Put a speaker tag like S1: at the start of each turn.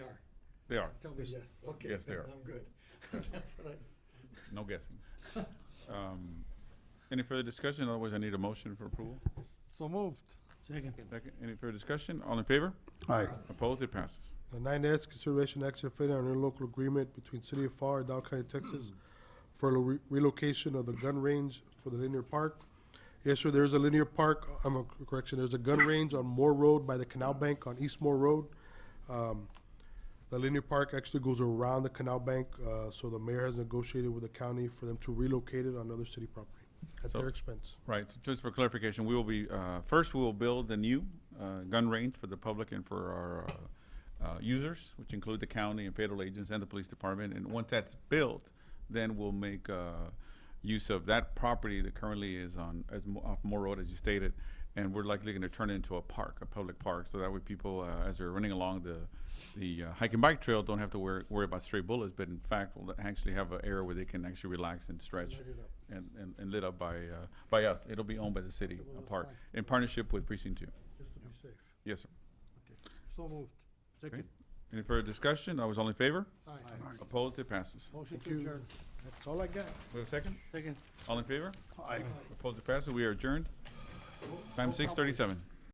S1: They are.
S2: Tell me yes, okay.
S1: Yes, they
S2: then
S1: are.
S2: I'm good. That's what
S1: No guessing. Um, Any further discussion? Otherwise, I need a motion for approval.
S3: So moved.
S4: Second.
S1: Second, any further discussion? All in favor?
S3: Aye.
S1: Opposed? It passes.
S5: The nine S, consideration action if any on interlocal agreement between City of FAR and Dow County, Texas for lo- relocation of the gun range for the linear park. Yes, sir, there's a linear park, I'm, a- correction, there's a gun range on Moore Road by the Canal Bank on East Moore Road. Um, The linear park actually goes around the Canal Bank, uh, so the mayor has negotiated with the county for them to relocate it on other city property at
S1: So-
S5: their expense.
S1: Right, so just for clarification, we will be, uh, first, we will build the new uh, gun range for the public and for our uh, uh, users, which include the county and federal agents and the police department. And once that's built, then we'll make uh, use of that property that currently is on, as Mo- off Moore Road, as you stated. And we're likely going to turn it into a park, a public park, so that way people, uh, as they're running along the, the uh, hike and bike trail, don't have to worry, worry about stray bullets, but in fact, will actually have an area where they can actually relax and stretch
S2: I.
S1: and, and, and lit up by, uh, by us. It'll be owned by the city, a park, in partnership with precinct two.
S2: Just to be safe.
S1: Yes, sir.
S2: So moved.
S1: Okay. Any further discussion? I was all in favor?
S2: Aye.
S1: Opposed? It passes.
S2: Motion to
S5: Thank you.
S2: adjourn.
S5: That's all I got.
S1: We have a second?
S4: Second.
S1: All in favor? Opposed? It passes. We are adjourned. Time six thirty-seven.